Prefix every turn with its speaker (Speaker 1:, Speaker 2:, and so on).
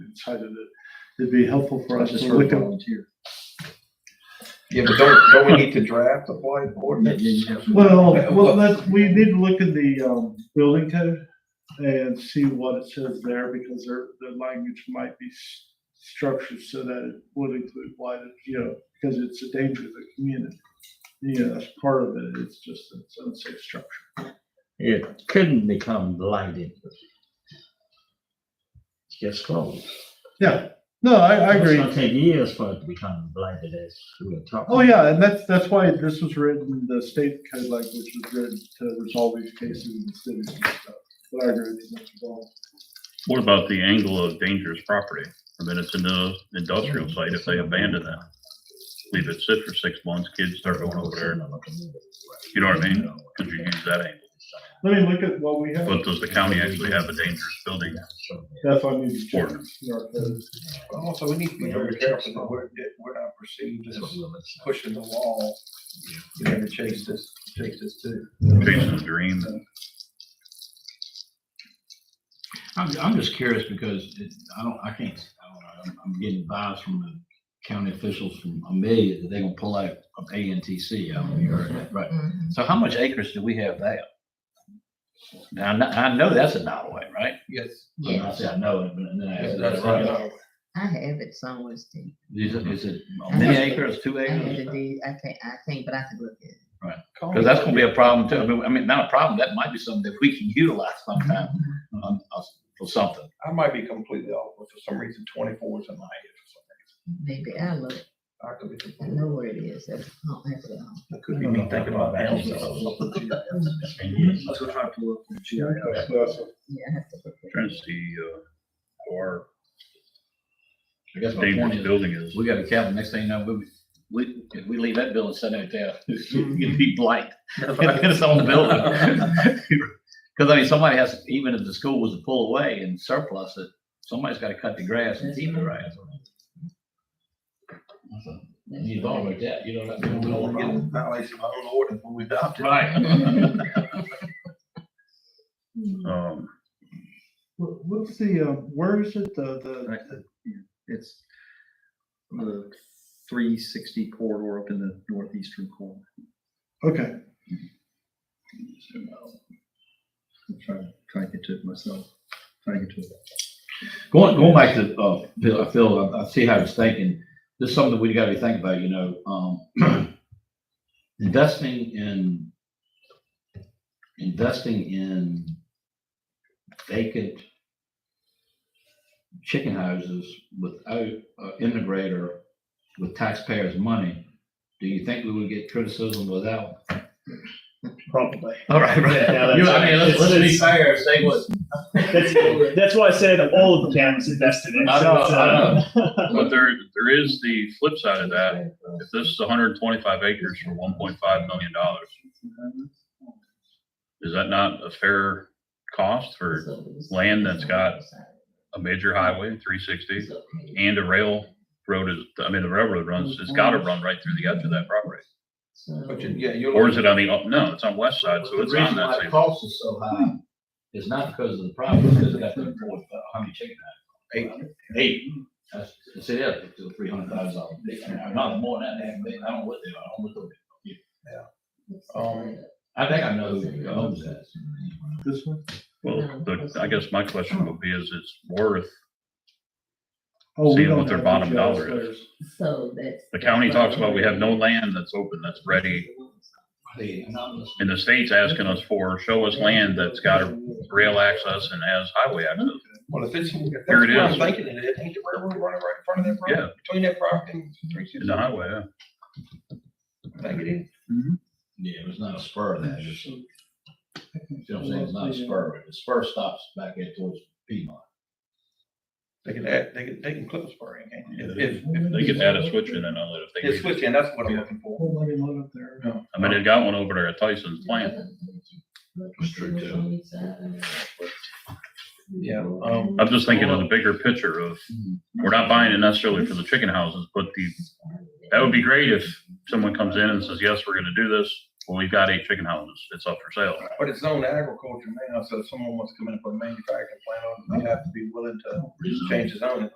Speaker 1: decided that it'd be helpful for us
Speaker 2: Just
Speaker 1: to
Speaker 2: for
Speaker 1: look at.
Speaker 2: volunteer.
Speaker 3: Yeah, but don't, don't we need to draft a blight
Speaker 2: Yeah,
Speaker 3: ordinance?
Speaker 2: yeah, yeah.
Speaker 1: Well, well, that's, we need to look in the, um, building code and see what it says there, because their, their language might be s- structured so that it would include blighted, you know, because it's a danger to the community. You know, that's part of it, it's just, it's unsafe structure.
Speaker 2: It couldn't become blighted. It's just closed.
Speaker 1: Yeah, no, I, I
Speaker 2: It's
Speaker 1: agree.
Speaker 2: gonna take years for it to become blighted as we were talking.
Speaker 1: Oh, yeah, and that's, that's why this was written, the state code language was written to resolve these cases in the cities and stuff. But I agree with you, Mr. Ball.
Speaker 4: What about the angle of dangerous property? I mean, it's in the industrial site, if they abandon that, leave it sit for six months, kids start going over there, You know what I mean? could you use that angle?
Speaker 1: Let me look at what we have,
Speaker 4: But does the county actually have a dangerous building
Speaker 1: that's why I need to check.
Speaker 4: ordinance?
Speaker 1: in our code.
Speaker 3: Also, we need to be very careful that we're, that we're not perceived as pushing the wall, you know, to chase this, chase this too.
Speaker 4: Chasing the dream,
Speaker 5: I'm, I'm just curious because it, I don't, I can't, I don't know, I'm, I'm getting vibes from the county officials from Amelia that they're gonna pull out of A N T C. I don't know if you heard that, right? So how much acreage do we have there? Now, I know, I know that's a dollar way, right?
Speaker 3: Yes.
Speaker 5: And I say I know it, but then I ask.
Speaker 3: That's right.
Speaker 6: I have it somewhere, Steve.
Speaker 5: Is it, is it many acres, two
Speaker 6: I have the
Speaker 5: acres?
Speaker 6: deed, I can't, I can't, but I can look at it.
Speaker 5: Cause that's gonna be a problem too. I mean, I mean, not a problem, that might be something that we can utilize sometime
Speaker 6: Mm-hmm.
Speaker 5: um, uh, for something.
Speaker 3: I might be completely off, but for some reason twenty-four is in my head
Speaker 6: Maybe I look,
Speaker 3: for some reason. I could be
Speaker 6: I
Speaker 3: completely.
Speaker 6: know where it is, I don't have it on.
Speaker 3: That could be me thinking about that.
Speaker 2: Let's
Speaker 3: go try to pull up the G I S.
Speaker 6: Yeah, I have to look at
Speaker 4: trying to
Speaker 6: it.
Speaker 4: see, uh, or
Speaker 5: I guess my point
Speaker 4: dangerous
Speaker 5: is,
Speaker 4: building is.
Speaker 5: We got a cabin, next thing you know, we, we, if we leave that building sitting out there, it'd be blight. It's on the building. Cause I mean, somebody has, even if the school was to pull away and surplus it, somebody's gotta cut the grass and keep the grass. You've already that, you know, that's.
Speaker 3: We don't want to get in violation of our own ordinance when we adopt it.
Speaker 5: Right.
Speaker 4: Um,
Speaker 1: What- What's the, uh, where is it, the, the,
Speaker 2: Right.
Speaker 1: the-
Speaker 2: It's the three sixty corridor up in the northeastern corner.
Speaker 1: okay,
Speaker 2: I'm trying, to- trying to get to it myself, trying to get to it.
Speaker 5: Going, going back to, uh, Phil, I feel, I see how he's thinking, there's something we gotta be thinking about, you know, um, investing in, investing in vacant chicken houses without, uh, integrator with taxpayers' money, do you think we would get criticism without?
Speaker 7: Probably.
Speaker 5: All right, right.
Speaker 7: Yeah, that's-
Speaker 5: You know, I mean, let's, let's be fair, say what.
Speaker 7: That's, that's why I said all of the town is invested in. it.
Speaker 5: I
Speaker 7: So
Speaker 5: know,
Speaker 7: it's,
Speaker 5: I know.
Speaker 4: but there, there is the flip side of that. If this is hundred and twenty-five acres for one point five million dollars, is that not a fair cost for land that's got- a major highway, three sixty? and a rail road is, I mean, the railroad runs, it's gotta run right through the edge of that property.
Speaker 3: But you, yeah, you're.
Speaker 4: Or is it on the, up? no, it's on west side, so
Speaker 5: The
Speaker 4: it's on
Speaker 5: reason why
Speaker 4: that
Speaker 5: the
Speaker 4: same.
Speaker 5: Cost is so high is not because of the problem, it's because they got to afford, uh, how many chicken
Speaker 3: Eight.
Speaker 5: houses? Eight. That's, that's it, up to three hundred thousand dollars. Not more than that, they- I don't know what they, I don't look at it.
Speaker 3: Um,
Speaker 5: I think I know who owns that.
Speaker 1: this one?
Speaker 4: Well, the, I guess my question would be, is it's worth,
Speaker 1: Oh, we
Speaker 4: Seeing
Speaker 1: don't
Speaker 4: what their
Speaker 1: have
Speaker 4: bottom
Speaker 1: the
Speaker 4: dollar
Speaker 1: jail
Speaker 4: is.
Speaker 1: stairs.
Speaker 6: So that's.
Speaker 4: the county talks about, we have no land that's open, that's ready.
Speaker 5: They- I'm not listening.
Speaker 4: And the state's asking us for, show us land that's got a rail access and has highway access.
Speaker 3: Well, if it's, if that's
Speaker 4: Here
Speaker 3: what
Speaker 4: it
Speaker 3: I'm
Speaker 4: is.
Speaker 3: thinking it is, ain't the railroad running right in front of that
Speaker 4: Yeah,
Speaker 3: property, between that property and three
Speaker 4: in
Speaker 3: sixty?
Speaker 4: the highway, yeah.
Speaker 3: Think it is.
Speaker 5: Yeah, it was not a spur of that, it's, you know, what I'm saying? it's not a spur, the spur stops back in towards Piedmont.
Speaker 3: They could add, they could, they can clip a spur in, can't they? If,
Speaker 4: If they could add a switch in and all that,
Speaker 3: if, it's
Speaker 4: if they,
Speaker 3: switching, that's what I'm looking for.
Speaker 1: Whole lot of lot up there.
Speaker 4: I mean, they got one over there at Tyson's plant.
Speaker 5: That's true, too.
Speaker 3: Yeah, um,
Speaker 4: I'm just thinking of the bigger picture of, we're not buying it necessarily for the chicken houses, but the That would be great if someone comes in and says, yes, we're gonna do this. Well, we've got eight chicken houses. It's up for sale.
Speaker 3: but it's zoned agriculture now, so if someone wants to come in and put a manufacturing plant on, they have to be willing to change the zoning.